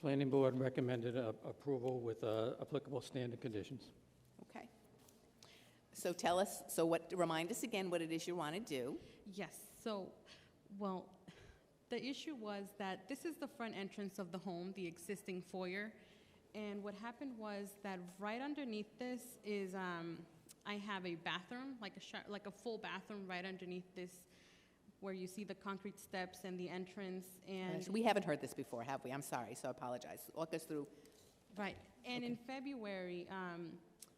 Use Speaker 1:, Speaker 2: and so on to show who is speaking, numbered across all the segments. Speaker 1: Planning Board recommended a- approval with uh, applicable standard conditions.
Speaker 2: Okay. So tell us, so what, remind us again what it is you want to do.
Speaker 3: Yes, so, well, the issue was that this is the front entrance of the home, the existing foyer. And what happened was that right underneath this is, um, I have a bathroom, like a sho- like a full bathroom right underneath this, where you see the concrete steps and the entrance and.
Speaker 2: So We haven't heard this before, have we? I'm sorry, so I apologize. Walk us through.
Speaker 3: Right. And in February, um,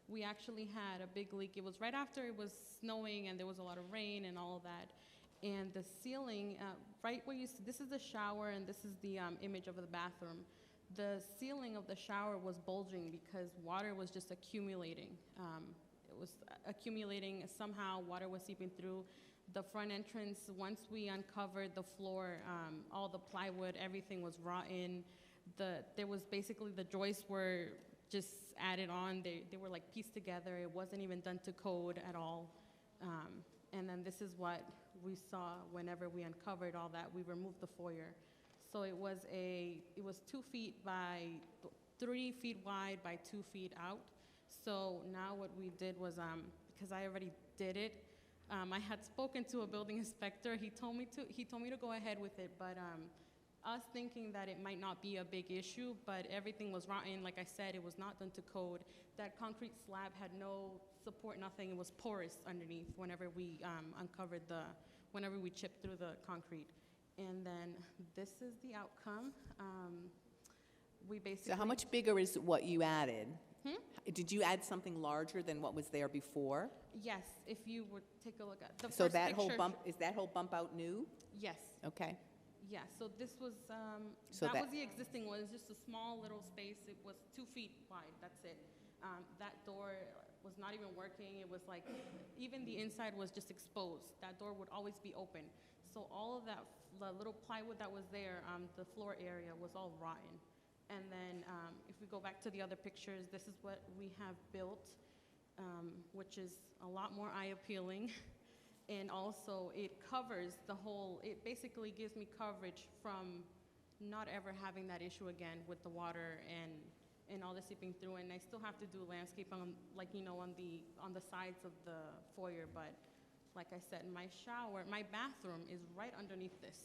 Speaker 3: we actually had a big leak. It was right after it was snowing and there was a lot of rain and all of that. And the ceiling, uh, right where you see, this is the shower and this is the um, image of the bathroom. The ceiling of the shower was bulging because water was just accumulating. Um, it was accumulating somehow, water was seeping through the front entrance. Once we uncovered the floor, um, all the plywood, everything was rotten the there was basically the joists were just added on. They they were like pieced together. It wasn't even done to code at all. Um, and then this is what we saw whenever we uncovered all that. We removed the foyer, so it was a it was two feet by th- three feet wide by two feet out. So now what we did was um, because I already did it. Um, I had spoken to a building inspector. He told me to he told me to go ahead with it, but um, us thinking that it might not be a big issue, but everything was rotten. Like I said, it was not done to code. That concrete slab had no support, nothing. It was porous underneath whenever we um, uncovered the, whenever we chipped through the concrete. And then this is the outcome. Um, we basically.
Speaker 2: So how much bigger is what you added?
Speaker 3: Hmm?
Speaker 2: Did you add something larger than what was there before?
Speaker 3: Yes, if you would take a look at the
Speaker 2: So
Speaker 3: first
Speaker 2: that whole
Speaker 3: picture-
Speaker 2: bump, is that whole bump out new?
Speaker 3: Yes,
Speaker 2: Okay.
Speaker 3: yes. So this was um,
Speaker 2: So
Speaker 3: that,
Speaker 2: that-
Speaker 3: was the existing one. It's just a small little space. It was two feet wide. That's it. Um, that door was not even working. It was like even the inside was just exposed. That door would always be open. So all of that f- the little plywood that was there, um, the floor area was all rotten. And then um, if we go back to the other pictures, this is what we have built, um, which is a lot more eye appealing. And also, it covers the whole, it basically gives me coverage from not ever having that issue again with the water and, and all the seeping through. And I still have to do landscape on, like, you know, on the, on the sides of the foyer. But like I said, my shower, my bathroom is right underneath this.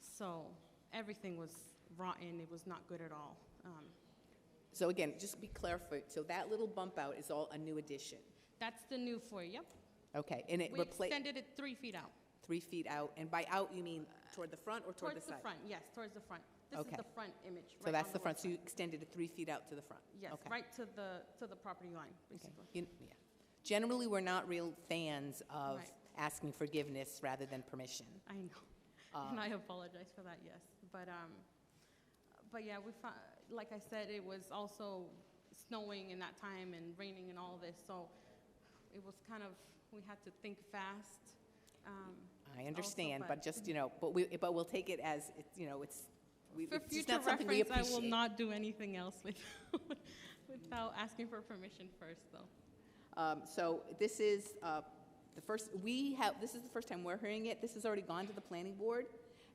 Speaker 3: So everything was rotten. It was not good at all. Um,
Speaker 2: So again, just be clear for, so that little bump out is all a new addition?
Speaker 3: that's the new foyer. Yep.
Speaker 2: Okay, and it
Speaker 3: We
Speaker 2: replaced,
Speaker 3: extended it three feet out.
Speaker 2: three feet out, and by out you mean toward the front or toward the
Speaker 3: Towards the
Speaker 2: side?
Speaker 3: front, yes, towards the front. This is
Speaker 2: Okay.
Speaker 3: the front image.
Speaker 2: So
Speaker 3: right
Speaker 2: that's
Speaker 3: on
Speaker 2: the front,
Speaker 3: west
Speaker 2: so you
Speaker 3: side.
Speaker 2: extended it three feet out to the front?
Speaker 3: Yes,
Speaker 2: Okay.
Speaker 3: right to the, to the property line,
Speaker 2: Okay.
Speaker 3: basically.
Speaker 2: You- yeah. Generally, we're not real fans of
Speaker 3: Right.
Speaker 2: asking forgiveness rather than permission. Um,
Speaker 3: I
Speaker 2: Uh,
Speaker 3: know, and I apologize for that, yes. But, um, but yeah, we found, like I said, it was also snowing in that time and raining and all this, so it was kind of, we had to think fast. Um,
Speaker 2: I understand,
Speaker 3: but-
Speaker 2: but just, you know, but we, but we'll take it as, it- you know, it's, we-
Speaker 3: For
Speaker 2: it's just
Speaker 3: future
Speaker 2: not something we
Speaker 3: reference, I
Speaker 2: appreciate.
Speaker 3: will not do anything else without, without asking for permission first, though.
Speaker 2: Um, So this is uh, the first, we have, this is the first time we're hearing it. This has already gone to the planning board.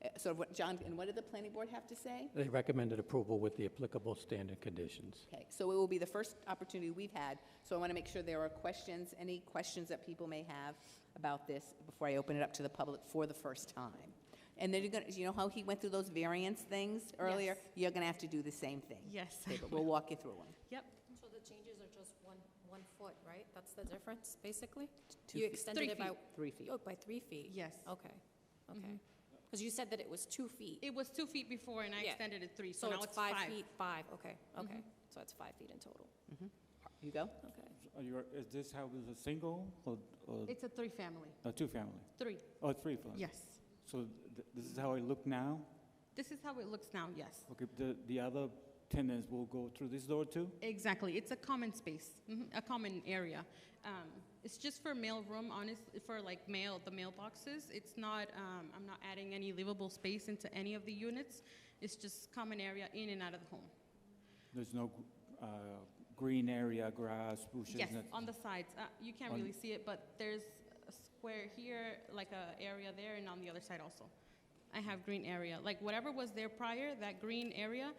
Speaker 2: Uh, So what, John, and what did the planning board have to say?
Speaker 1: They recommended approval with the applicable standard conditions.
Speaker 2: Okay, so it will be the first opportunity we've had, so I want to make sure there are questions, any questions that people may have about this before I open it up to the public for the first time. And then you're going to, you know how he went through those variance things earlier?
Speaker 3: Yes.
Speaker 2: You're going to have to do the same thing.
Speaker 3: Yes.
Speaker 2: Okay, but we'll walk you through them.
Speaker 3: Yep,
Speaker 4: So the changes are just one, one foot, right? That's the difference, basically?
Speaker 2: Two
Speaker 4: You
Speaker 2: feet.
Speaker 4: extended
Speaker 3: Three
Speaker 4: it by,
Speaker 3: feet.
Speaker 2: Three feet.
Speaker 4: oh, by three feet?
Speaker 3: yes.
Speaker 2: Oh.
Speaker 4: Okay, okay. Because you said that it was two feet,
Speaker 3: It was two feet before, and I
Speaker 4: Yeah.
Speaker 3: extended it three, so
Speaker 4: so
Speaker 3: now
Speaker 4: it's
Speaker 3: it's
Speaker 4: five feet, five, okay, okay. So it's five feet in total,
Speaker 2: You go?
Speaker 4: okay.
Speaker 5: Are you, is this house is a single or, or
Speaker 3: It's a three-family,
Speaker 5: a two-family?
Speaker 3: three,
Speaker 5: Or three-family?
Speaker 3: yes.
Speaker 5: So th- this is how it look now?
Speaker 3: This is how it looks now, yes.
Speaker 5: Okay, the, the other tenants will go through this door too?
Speaker 3: Exactly, it's a common space, mhm, a common area. Um, It's just for mailroom, honest, for like mail, the mailboxes. It's not, um, I'm not adding any livable space into any of the units. It's just common area in and out of the home.
Speaker 5: There's no uh, green area, grass, bushes?
Speaker 3: Yes,
Speaker 5: nothing?
Speaker 3: on the sides. Uh, You can't
Speaker 5: On-
Speaker 3: really see it, but there's a square here, like a area there, and on the other side also. I have green area. Like whatever was there prior, that green area,